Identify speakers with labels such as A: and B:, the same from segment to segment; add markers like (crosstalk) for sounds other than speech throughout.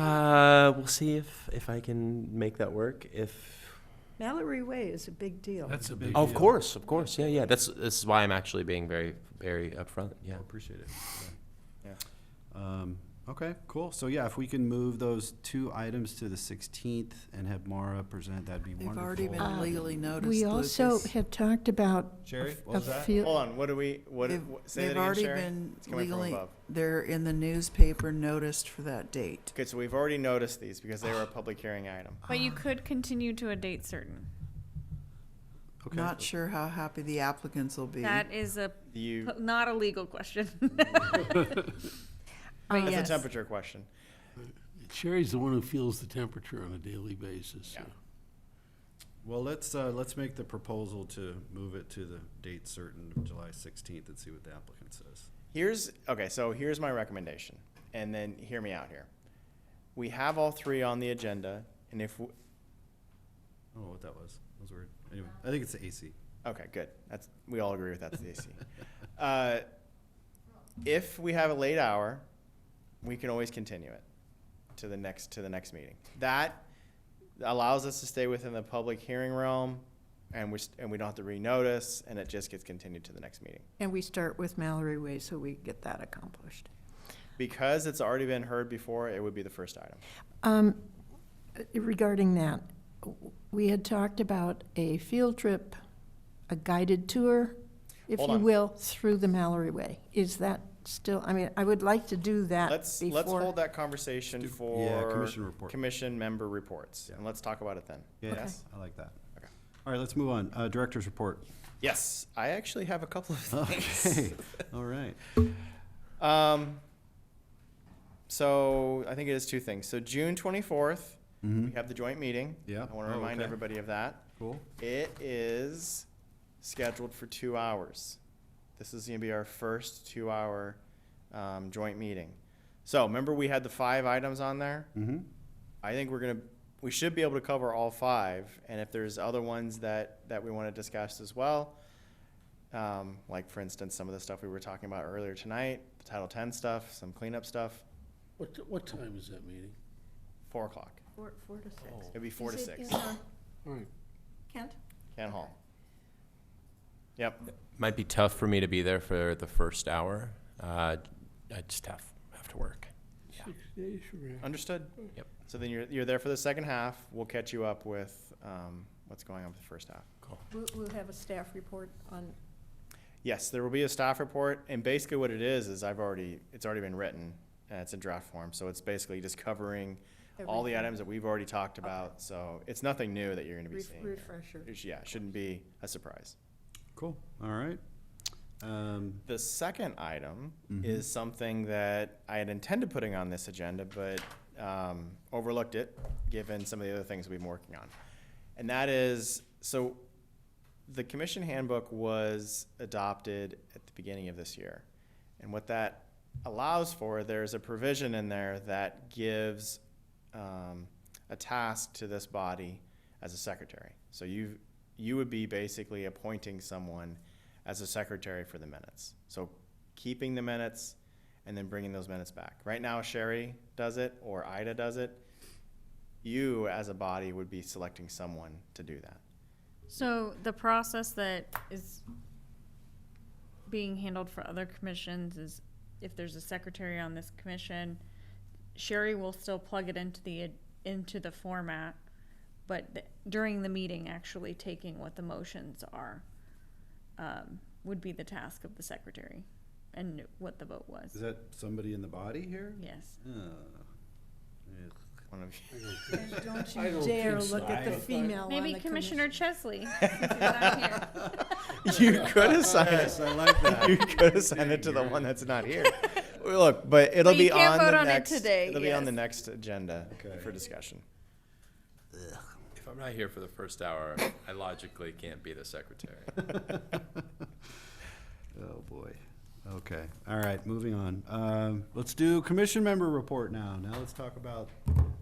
A: Uh, we'll see if, if I can make that work. If
B: Mallory Way is a big deal.
C: That's a big
A: oh, of
C: deal.
A: course, of course, yeah, yeah. That's this is why I'm actually being very very upfront.
D: I
A: Yeah.
D: appreciate it. Yeah. Um, Okay, cool. So yeah, if we can move those two items to the 16th and have Mara present, that'd be
B: They've
D: wonderful.
B: already been
E: Uh,
B: legally noticed.
E: We also
B: Lucas.
E: had talked about. a
F: Sherry,
E: f-
F: what
E: a
F: was that?
E: few-
G: Hold on, what do we, what,
B: They've-
G: what- say that
B: They've
G: again,
B: already
G: Sherry?
B: been
G: It's coming from
B: legally,
G: above.
B: they're in the newspaper noticed for that date.
G: Okay, so we've already noticed these because they
B: (sighs)
G: were a public hearing item.
H: But you could continue to a date certain.
D: Okay.
B: Not sure how happy the applicants will be.
H: That is a,
G: You,
H: not a legal question. (laughs)
E: Uh,
G: that's
H: yes.
G: a temperature question.
C: Sherry's the one who feels the temperature on a daily basis. so.
G: Yeah.
D: Well, let's, uh, let's make the proposal to move it to the date certain of July 16th and see what the applicant says.
G: Here's okay, so here's my recommendation, and then hear me out here. We have all three on the agenda, and if w
D: I don't know what that was. That was weird. Anyway, I think it's the AC.
G: okay, good. That's we all agree with that's the AC. (laughs) Uh, if we have a late hour, we can always continue it to the next to the next meeting. That allows us to stay within the public hearing realm, and we and we don't have to renotice, and it just gets continued to the next meeting.
E: And we start with Mallory Way, so we get that accomplished.
G: Because it's already been heard before, it would be the first item.
E: Um, Regarding that, we had talked about a field trip, a guided tour, if
G: Hold
E: you
G: on.
E: will, through the Mallory Way. Is that still, I mean, I would like to do that
G: Let's,
E: Uh, before.
G: let's hold that conversation
D: Do-
G: for.
D: yeah, commission report.
G: Commission member reports, and let's talk about it then.
D: Yeah,
E: Okay.
D: Yes, I like that.
G: Okay.
D: All right, let's move on. Uh, Director's report.
G: Yes, I actually have a couple of
D: (laughs)
G: things.
D: Okay, all right.
G: Um, so I think it is two things. So June twenty-fourth, we have the joint meeting.
D: Mm-hmm. Yeah.
G: I want to
D: Oh,
G: remind
D: okay.
G: everybody of that.
D: Cool.
G: It is scheduled for two hours. This is going to be our first two-hour um, joint meeting. So remember, we had the five items on there.
D: Mhm.
G: I think we're gonna, we should be able to cover all five, and if there's other ones that, that we wanna discuss as well, um, like for instance, some of the stuff we were talking about earlier tonight, the Title Ten stuff, some cleanup stuff,
C: What, t- what time is that meeting?
G: four o'clock.
E: Four four to six.
G: It'd be Oh, four to
E: Is it
G: six,
E: in our-
C: All right.
E: Kent?
G: Can Hall. Yep,
A: Might be tough for me to be there for the first hour. Uh, I just have have to work.
C: Six days from now.
G: understood.
A: Yep.
G: So then you're, you're there for the second half, we'll catch you up with, um, what's going on with the first half.
A: Cool.
E: We'll, we'll have a staff report on,
G: Yes, there will be a staff report, and basically what it is, is I've already, it's already been written, and it's in draft form, so it's basically just covering all the
E: Everything.
G: items that we've already talked about, so it's nothing new that you're gonna be
E: Ref-
G: seeing. here.
E: refresher.
G: It's- Yeah, it shouldn't be a surprise.
D: Cool, all right. Um,
G: The second item is something that I had intended putting on this agenda, but um, overlooked it, given some of the other things we've been working on. And that is, so the commission handbook was adopted at the beginning of this year. And what that allows for, there's a provision in there that gives um, a task to this body as a secretary. So you, you would be basically appointing someone as a secretary for the minutes. So keeping the minutes and then bringing those minutes back. Right now Sherry does it or Ida does it. You as a body would be selecting someone to do that.
H: So the process that is being handled for other commissions is if there's a secretary on this commission, Sherry will still plug it into the, into the format, but th- during the meeting, actually taking what the motions are, um, would be the task of the secretary and what the vote
D: Is
H: was.
D: that somebody in the body here?
H: Yes.
D: Uh, yeah.
G: One of you.
E: don't
C: I
E: you
C: don't
E: dare
C: think so.
E: look at the
C: I-
E: female on the
H: Maybe Commissioner
E: commission.
H: Chesley. since he's not here.
G: (laughs) You could assign
D: Yes,
G: it.
D: I like that.
G: You could assign it to the one that's not here. Well, Look, but it'll
H: But you
G: be
H: can't
G: on
H: vote
G: the
H: on it
G: next,
H: today,
G: it'll be on the
H: yes.
G: next agenda
D: Okay.
G: for discussion.
A: If I'm not here for the first hour, I logically can't be the secretary.
D: (laughs) Oh, boy. Okay, all right, moving on. Um, let's do commission member report now. Now let's talk about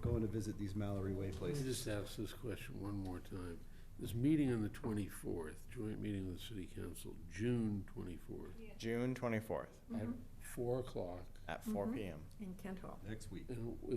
D: going to visit these Mallory Way
C: Let me
D: places.
C: just ask this question one more time. This meeting on the twenty-fourth, joint meeting with the city council, June twenty-fourth,
G: June twenty-fourth
C: at four o'clock.
H: Mm-hmm.
G: at four P M.
E: In Kent Hall.
D: Next week.
C: And